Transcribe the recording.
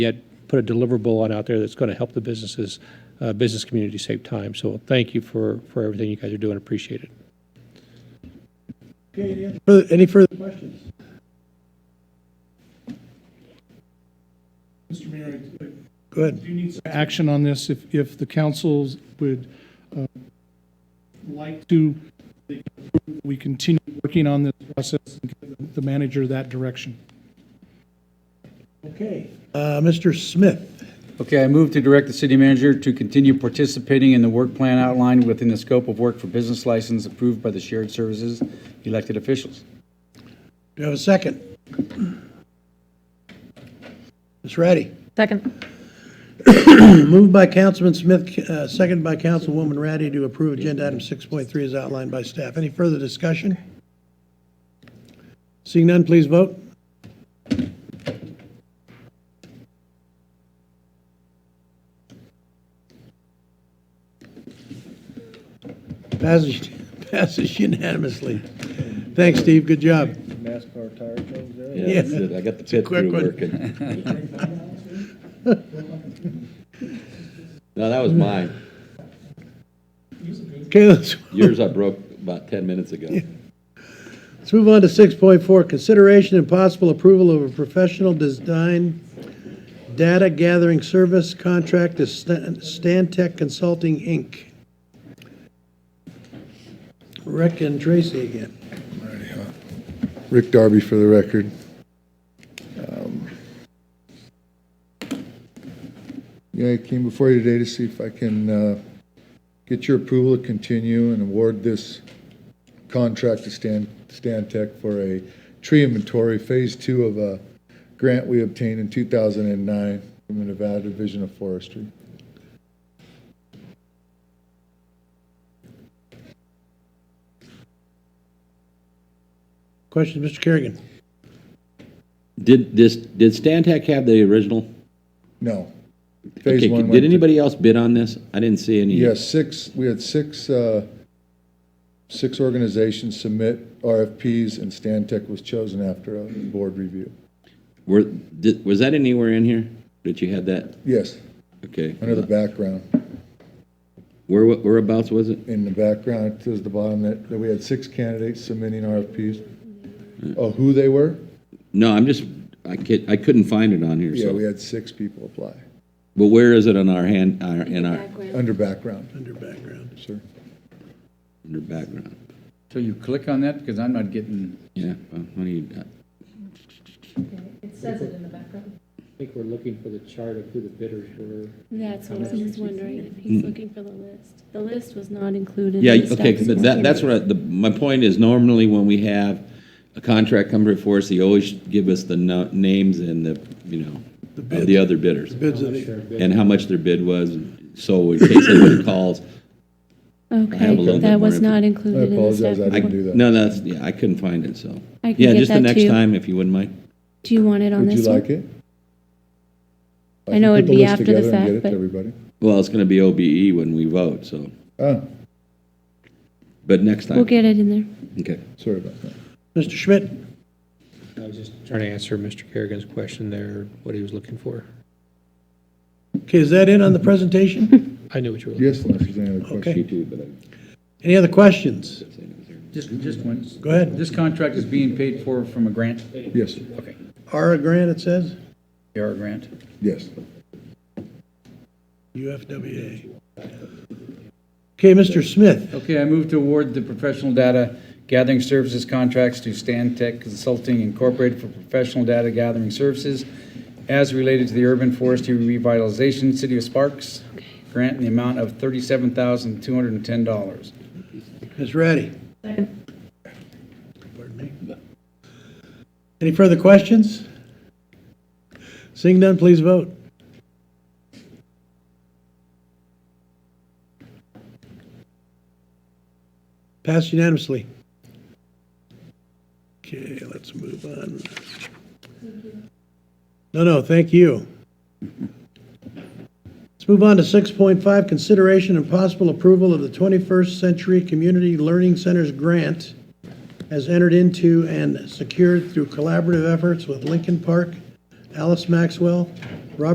yet put a deliverable on out there that's going to help the businesses, uh, business community save time. So thank you for, for everything you guys are doing. Appreciate it. Further- Any further questions? Mr. Mayor, I Go ahead. do need some action on this. If, if the councils would uh, like to, they can approve that we continue working on this process and give the manager that direction. Okay. Uh, Mr. Smith, Okay, I move to direct the city manager to continue participating in the work plan outlined within the scope of work for business license approved by the shared services elected officials. do you have a second? Ms. Ratty. Second. Moved by Councilman Smith, uh, seconded by Councilwoman Ratty to approve agenda item 6.3 as outlined by staff. Any further discussion? Seeing none, please vote. Passes passes unanimously. Thanks, Steve. Good job. NASCAR tire change there. Yeah. Yeah, that's it. I got the pit Quick crew one. working. No, that was mine. Okay, let's Yours I broke about 10 minutes ago. Let's move on to 6.4, consideration and possible approval of a professional design data gathering service contract to Stan- Stantec Consulting, Inc. Rick and Tracy again. Rick Darby for the record. Um, Yeah, I came before you today to see if I can uh, get your approval to continue and award this contract to Stan, Stan Tech for a tree inventory, phase two of a grant we obtained in 2009 from the Nevada Division of Forestry. Questions, Mr. Kerrigan? Did this, did Stantec have the original? No. Phase Okay, one went Did to- anybody else bid on this? I didn't see any. Yeah, six, we had six, uh, six organizations submit RFPs, and Stantec was chosen after a board review. Were, did, was that anywhere in here that you had that? Yes, Okay. under the background. Where, whereabouts was it? In the background, it says the bottom that, that we had six candidates submitting RFPs. Oh, who they were? No, I'm just, I could, I couldn't find it on here, Yeah, we so. had six people apply, But where is it on our hand, our, in our, under background, Under background. sir. in our background? So you click on that, because I'm not getting, Yeah, well, what do you, got? It says it in the background. I think we're looking for the chart of who the bidders were. That's what I was wondering, if he's looking for the list. The list was not included. Yeah, in the okay, staff's but that, that's what, I- the, my point is normally when we have a contract come before us, they always give us the no- names and the, you know, of the other bidders Bids of the- and how much their bid was, so in case anybody calls. have a little Okay, bit more that was info. not I included in the staff apologize, I report. didn't do that. No, that's, yeah, I couldn't find it, so. I can Yeah, get just the that to next you. time, if you wouldn't mind. Do you want it on Would you this like one? it? I know it'd can put be list after the together and fact, Get it but- to everybody. Well, it's gonna be OBE when we vote, so, Oh, but next time. We'll get it in there. Okay. sorry about that. Mr. Schmidt? I was just trying to answer Mr. Kerrigan's question there, what he was looking for. Okay, is that it on the presentation? I knew what you were looking Yes, unless there's any other questions. Okay. too, but I Any other questions? just, just one. Go ahead. This contract is being paid for from a grant, Yes, Ara Grant, it says? AR grant. yes. UFWA. Okay, Mr. Smith, Okay, I move to award the professional data gathering services contracts to Stan Tech Consulting Incorporated for professional data gathering services as related to the urban forestry revitalization, City of Sparks, grant in the amount of $37,210. Ms. Ratty. Pardon me. Any further questions? Seeing none, please vote. Passed unanimously. Okay, let's move on. No, no, thank you. Let's move on to 6.5, consideration and possible approval of the 21st Century Community Learning Centers grant as entered into and secured through collaborative efforts with Lincoln Park, Alice Maxwell, Robert